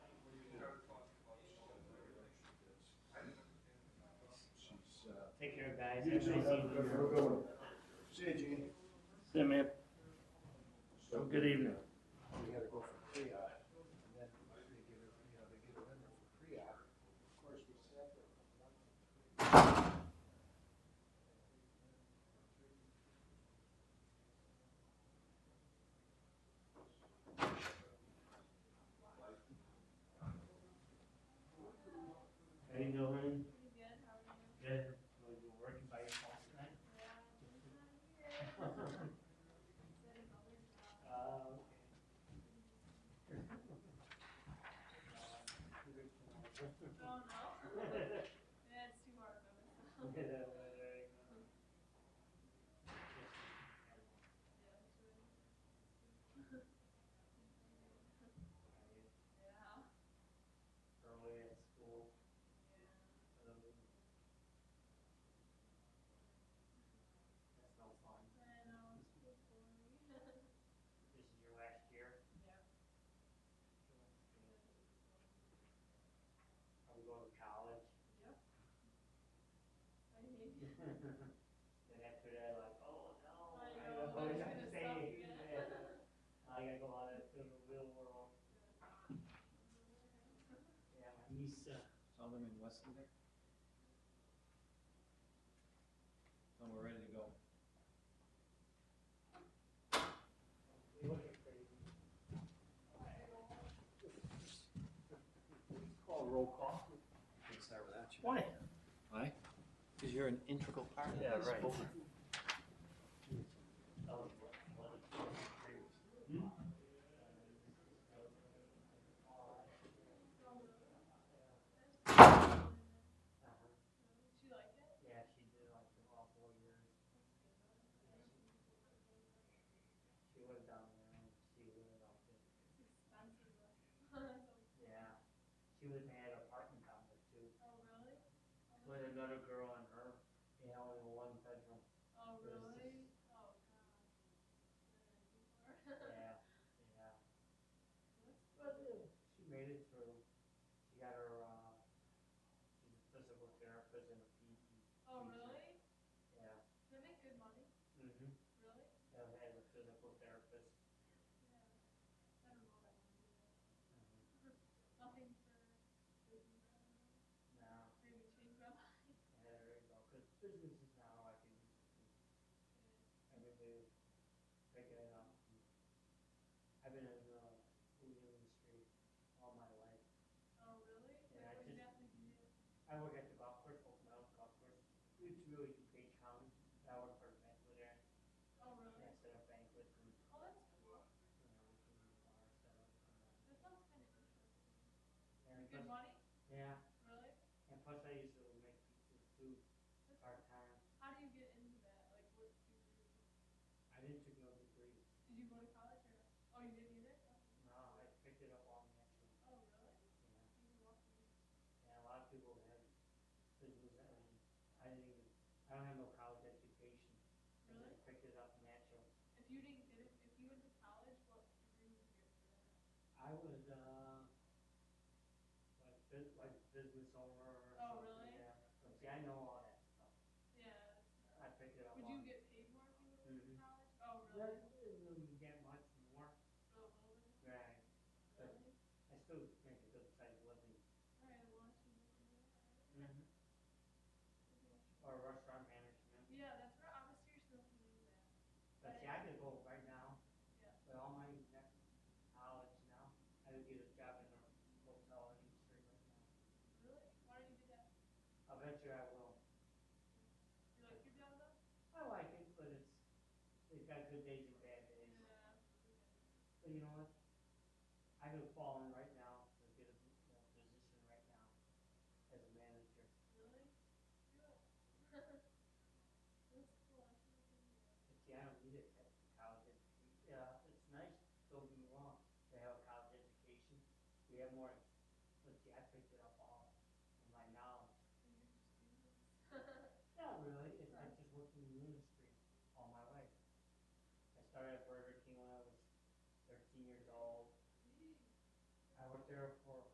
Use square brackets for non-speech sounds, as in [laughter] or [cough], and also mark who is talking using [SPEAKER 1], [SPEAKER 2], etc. [SPEAKER 1] out.
[SPEAKER 2] Take care, guys.
[SPEAKER 1] You
[SPEAKER 2] Have a
[SPEAKER 1] too,
[SPEAKER 2] nice
[SPEAKER 1] have a
[SPEAKER 2] evening.
[SPEAKER 1] good, have a good one. See you, Gene.
[SPEAKER 3] Yeah, man. So, good evening.
[SPEAKER 1] We had to go for pre-op, and then they get a, you know, they get a number for pre-op. Of course, we sat there.
[SPEAKER 2] How you doing? Good. Well, you were working by yourself tonight? Uh, [laughs] okay.
[SPEAKER 4] Oh, no. Yeah, it's too hard on
[SPEAKER 2] Yeah,
[SPEAKER 4] myself.
[SPEAKER 2] well, there you
[SPEAKER 4] Yeah.
[SPEAKER 2] go. Early at school. Um, That's no fun.
[SPEAKER 4] I know, it's too boring.
[SPEAKER 2] This is your last year.
[SPEAKER 4] Yeah.
[SPEAKER 2] Are we going to college?
[SPEAKER 4] Yep. I hate it.
[SPEAKER 2] And after that, like, oh, no.
[SPEAKER 4] I
[SPEAKER 2] don't
[SPEAKER 4] know,
[SPEAKER 2] what
[SPEAKER 4] it's
[SPEAKER 2] I'm
[SPEAKER 4] gonna
[SPEAKER 2] saying.
[SPEAKER 4] stop again.
[SPEAKER 2] Yeah. I gotta go out into the real world. Yeah, my niece, uh,
[SPEAKER 1] Alderman Weston there? And we're ready to go.
[SPEAKER 2] they look at crazy.
[SPEAKER 1] Call roll call. We can start without you.
[SPEAKER 2] Why?
[SPEAKER 1] Why? Because you're an integral part of this. Yeah, right.
[SPEAKER 2] Oh,
[SPEAKER 1] Hmm?
[SPEAKER 2] Uh,
[SPEAKER 4] She liked it?
[SPEAKER 2] Yeah, she did like the all four years. She lived down there, and she lived up there.
[SPEAKER 4] It's expensive.
[SPEAKER 2] Yeah, she was at an apartment complex too.
[SPEAKER 4] Oh, really?
[SPEAKER 2] With another girl and her, you know, in one bedroom.
[SPEAKER 4] Oh, really? Oh, God.
[SPEAKER 2] Yeah, yeah. But uh, she made it through. She got her, uh, she's a physical therapist and a PT.
[SPEAKER 4] Oh, really?
[SPEAKER 2] Yeah.
[SPEAKER 4] They make good money,
[SPEAKER 2] Mm-hmm.
[SPEAKER 4] really?
[SPEAKER 2] Yeah, as a physical therapist.
[SPEAKER 4] Yeah. I don't know that one. [laughs]
[SPEAKER 2] Mm-hmm.
[SPEAKER 4] Nothing for baby grandma.
[SPEAKER 2] Now,
[SPEAKER 4] Maybe change [laughs] my mind.
[SPEAKER 2] yeah, there you go. Because business is now like it used to be. everybody picking it up. I've been in the food industry all my life.
[SPEAKER 4] Oh, really?
[SPEAKER 2] Yeah, I
[SPEAKER 4] Like, what do you
[SPEAKER 2] just-
[SPEAKER 4] have to do?
[SPEAKER 2] I work at the golf course, Old Mountain Golf Course. It's really great town. I work for a banquet there.
[SPEAKER 4] Oh,
[SPEAKER 2] And I
[SPEAKER 4] really?
[SPEAKER 2] set up banquets and, you
[SPEAKER 4] Oh, that's cool.
[SPEAKER 2] know, we can do bar set up. and,
[SPEAKER 4] That sounds kind of interesting.
[SPEAKER 2] uh, And
[SPEAKER 4] Good
[SPEAKER 2] plus,
[SPEAKER 4] money?
[SPEAKER 2] yeah,
[SPEAKER 4] Really?
[SPEAKER 2] and plus I used to make pizzas too,
[SPEAKER 4] That's-
[SPEAKER 2] part time.
[SPEAKER 4] How do you get into that? Like, what do you do?
[SPEAKER 2] I didn't take no degree.
[SPEAKER 4] Did you go to college or? Oh, you didn't either? Oh,
[SPEAKER 2] No, I picked it up all natural.
[SPEAKER 4] Oh, really?
[SPEAKER 2] Yeah.
[SPEAKER 4] You walked in.
[SPEAKER 2] Yeah, a lot of people have business, I mean, I didn't even, I don't have no college education. I
[SPEAKER 4] Really?
[SPEAKER 2] just Picked it up natural.
[SPEAKER 4] If you didn't get it, if you went to college, what degree would you get for that?
[SPEAKER 2] I was, uh, like, bu- like business owner or something.
[SPEAKER 4] Oh, really?
[SPEAKER 2] Yeah, but see, I know all that stuff.
[SPEAKER 4] Yeah.
[SPEAKER 2] I picked it up
[SPEAKER 4] Would
[SPEAKER 2] on.
[SPEAKER 4] you get paid more if you went to
[SPEAKER 2] Mhm.
[SPEAKER 4] college? Oh,
[SPEAKER 2] Yeah,
[SPEAKER 4] really? Oh,
[SPEAKER 2] it didn't really get much more,
[SPEAKER 4] For a little bit?
[SPEAKER 2] right, but
[SPEAKER 4] Really?
[SPEAKER 2] I still make a good size living.
[SPEAKER 4] Alright, well, I should look into that.
[SPEAKER 2] Mm-hmm. Or restaurant management,
[SPEAKER 4] Yeah, that's where I was seriously looking into that.
[SPEAKER 2] but see, I could go right now,
[SPEAKER 4] Yeah.
[SPEAKER 2] with all my next knowledge now, I would get a job in a hotel industry right now.
[SPEAKER 4] Really? Why don't you do that?
[SPEAKER 2] I bet you I will.
[SPEAKER 4] You like your job though?
[SPEAKER 2] I like it, but it's, it's got good days and bad days.
[SPEAKER 4] Yeah.
[SPEAKER 2] But you know what? I could fall in right now and get a you know, position right now as a manager.
[SPEAKER 4] Really? Do it. [laughs] That's cool. I should uh, look into that.
[SPEAKER 2] But see, I don't need a co- college education. Yeah, it's nice, don't get me wrong, to have a college education. We have more, but see, I picked it up all
[SPEAKER 4] [laughs]